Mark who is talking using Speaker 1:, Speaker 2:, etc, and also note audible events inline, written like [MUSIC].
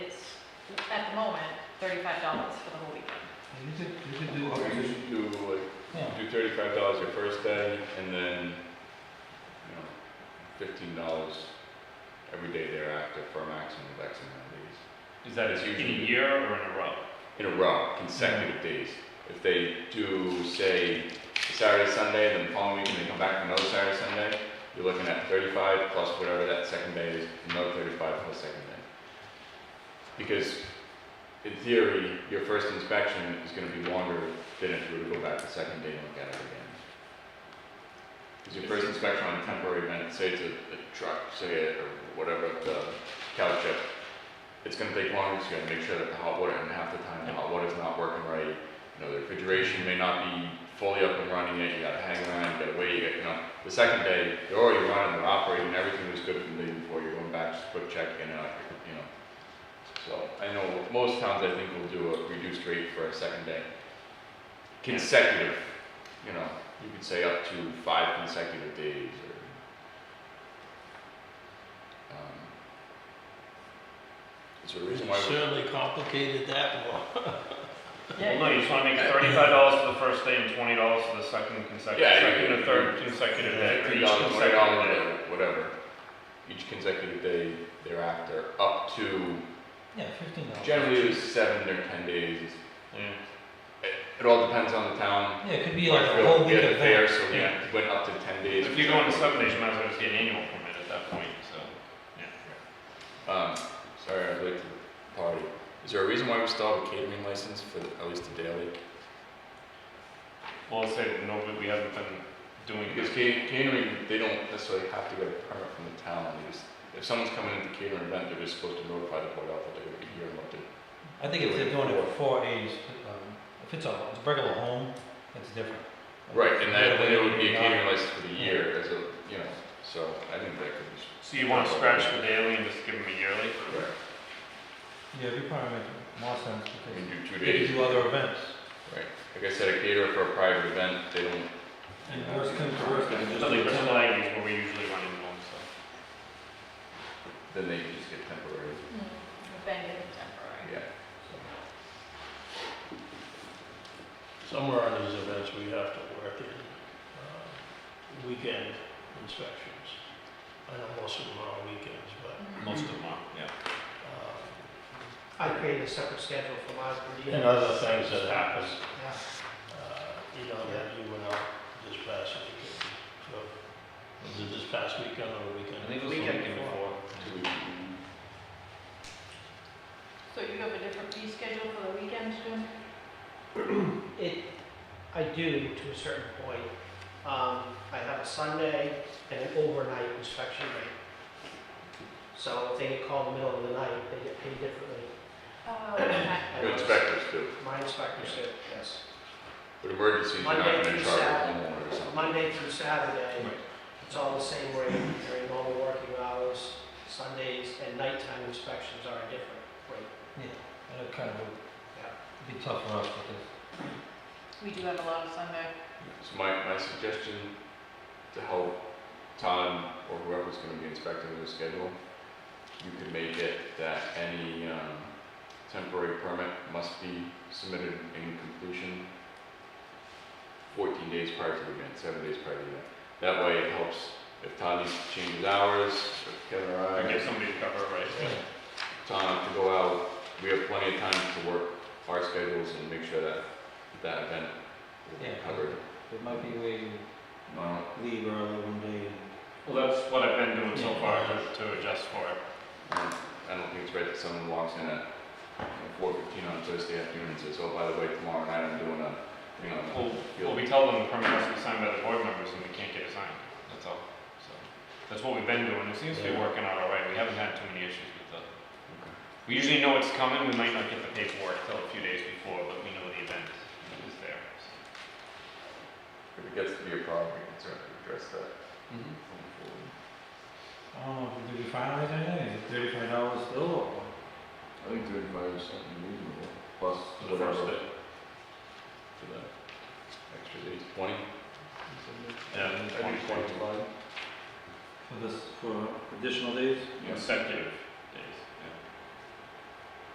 Speaker 1: thirty-five dollars for the whole weekend.
Speaker 2: You could, you could do,
Speaker 3: Well, we just do
Speaker 2: yeah,
Speaker 3: like, do thirty-five dollars your first day and then, you know, fifteen dollars every day thereafter for a maximum of X amount of days.
Speaker 4: Is that
Speaker 3: It's
Speaker 4: in
Speaker 3: usually-
Speaker 4: a year or in a row?
Speaker 3: in a row, consecutive days. If they do, say, Saturday, Sunday, then the following week, and they come back for another Saturday, Sunday, you're looking at thirty-five plus whatever that second day is, another thirty-five plus second day. Because in theory, your first inspection is gonna be longer than if you were to go back the second day and look at it again. Because your first inspection on a temporary event, say it's a, a truck, say it, or whatever, the cow chip, it's gonna take longer, so you gotta make sure that the hot water, and half the time, the hot water's not working right. You know, the refrigeration may not be fully up and running yet, you gotta hang around, you gotta wait, you gotta, you know. The second day, they're already running, they're operating, everything was good from the day before, you're going back, just quick check in and out, you know. So, I know most towns, I think, will do a reduced rate for a second day. Consecutive, you know, you could say up to five consecutive days or. um, Is there a reason
Speaker 5: You
Speaker 3: why we
Speaker 5: Certainly complicated that more.
Speaker 4: Well, no, you just wanna make it thirty-five dollars for the first day and twenty dollars for the second consecutive,
Speaker 3: Yeah, you-
Speaker 4: second or third consecutive day. or
Speaker 3: Three
Speaker 4: each
Speaker 3: dollars, twenty
Speaker 4: consecutive
Speaker 3: dollars, whatever,
Speaker 4: day.
Speaker 3: whatever. Each consecutive day thereafter, up to,
Speaker 2: yeah, fifteen dollars.
Speaker 3: generally it was seven or ten days.
Speaker 4: Yeah.
Speaker 3: It, it all depends on the town.
Speaker 2: Yeah, it could be like
Speaker 3: I
Speaker 2: a
Speaker 3: feel
Speaker 2: whole
Speaker 3: we
Speaker 2: week
Speaker 3: had the fair,
Speaker 2: event.
Speaker 3: so we
Speaker 4: Yeah.
Speaker 3: went up to ten days.
Speaker 4: If you're going to seven days, you might as well just get an annual permit at that point, so.
Speaker 3: Um, sorry, I was late to the party. Is there a reason why we still have a catering license for the- at least the daily?
Speaker 4: Well, let's say that nobody, we haven't been doing
Speaker 3: Because
Speaker 4: this.
Speaker 3: ca- catering, they don't necessarily have to get a permit from the town. They just, if someone's coming into catering event, they're just supposed to notify the board of what they're here and what they're
Speaker 2: I think if they're doing it for four A's, um, if it's a, it's a regular home, it's different.
Speaker 3: Right, and that, then it would be a
Speaker 2: Yeah.
Speaker 3: catering license for the year as a, you know, so I think that could be.
Speaker 4: So you wanna scratch the daily and just give them a yearly?
Speaker 3: Right.
Speaker 2: Yeah, it'd probably make more sense
Speaker 3: I mean,
Speaker 2: because
Speaker 3: do two
Speaker 2: they could
Speaker 3: days,
Speaker 2: do other events.
Speaker 3: right, like I said, a caterer for a private event, they don't.
Speaker 2: And worst comes to worst, they could
Speaker 4: I
Speaker 2: just
Speaker 4: think
Speaker 2: do
Speaker 4: that's
Speaker 2: ten-
Speaker 4: why is where we usually run into them, so.
Speaker 3: Then they just get temporary,
Speaker 1: Mm, Bend it temporary.
Speaker 3: yeah.
Speaker 5: Somewhere on these events, we have to work in uh, weekend inspections. I know most of them are on weekends, but
Speaker 1: Mm.
Speaker 4: Most of them are, yeah.
Speaker 5: uh,
Speaker 6: I created a separate schedule for my review.
Speaker 5: and other things that happen,
Speaker 6: Yeah.
Speaker 5: uh, you know, that you went out this past weekend. So, was it this past weekend or weekend?
Speaker 4: I think it was the weekend before.
Speaker 3: Two weeks.
Speaker 1: So you have a different fee schedule for the weekends, Jim?
Speaker 6: It, I do to a certain point. Um, I have a Sunday and an overnight inspection rate. So if they get called in the middle of the night, they get paid differently.
Speaker 1: Oh, okay.
Speaker 6: I
Speaker 3: Your
Speaker 6: know
Speaker 3: inspectors do,
Speaker 6: My inspectors do, yes.
Speaker 3: but emergencies, you're not
Speaker 6: Monday
Speaker 3: gonna
Speaker 6: through
Speaker 3: charge a
Speaker 6: Saturday.
Speaker 3: homeowner or something.
Speaker 6: Monday through Saturday,
Speaker 2: Right.
Speaker 6: it's all the same rate during normal working hours. Sundays and nighttime inspections are a different rate.
Speaker 2: and it kind of would be tough for us because
Speaker 1: [COUGHS] We do have a lot of Sunday.
Speaker 3: So my, my suggestion to help Todd or whoever's gonna be inspecting their schedule, you could make it that any, um, temporary permit must be submitted in completion fourteen days prior to the event, seven days prior to the event. That way it helps if Todd needs to change his hours, if Kevin or I.
Speaker 4: I give somebody to cover, it, right?
Speaker 3: Tom to go out, we have plenty of time to work our schedules and make sure that that event will be
Speaker 2: Yeah.
Speaker 3: covered.
Speaker 2: it might be where you
Speaker 3: Well,
Speaker 2: leave early one day and
Speaker 4: Well, that's what I've been doing so far to- to adjust for it.
Speaker 3: Um, I don't think it's right that someone walks in at four fifteen on Thursday afternoon and says, oh, by the way, tomorrow night I'm doing a, you know.
Speaker 4: Well, well, we tell them the permit has to be signed by the board members and we can't get it signed, that's all. So, that's what we've been doing, it seems to be
Speaker 5: Yeah.
Speaker 4: working out all right, we haven't had too many issues with the, we usually know it's coming, we might not get the paperwork till a few days before, but we know the event is there. so.
Speaker 3: If it gets to be a problem, we can certainly address that. going forward.
Speaker 2: I don't know, Oh, did we finalize anything? Is it thirty-five dollars still or?
Speaker 3: I think thirty-five is something reasonable, plus
Speaker 4: For the first day.
Speaker 3: For the extra days, twenty?
Speaker 4: Yeah,
Speaker 3: Twenty, twenty-five?
Speaker 2: For this, for additional days?
Speaker 3: Yeah.
Speaker 4: Consecutive,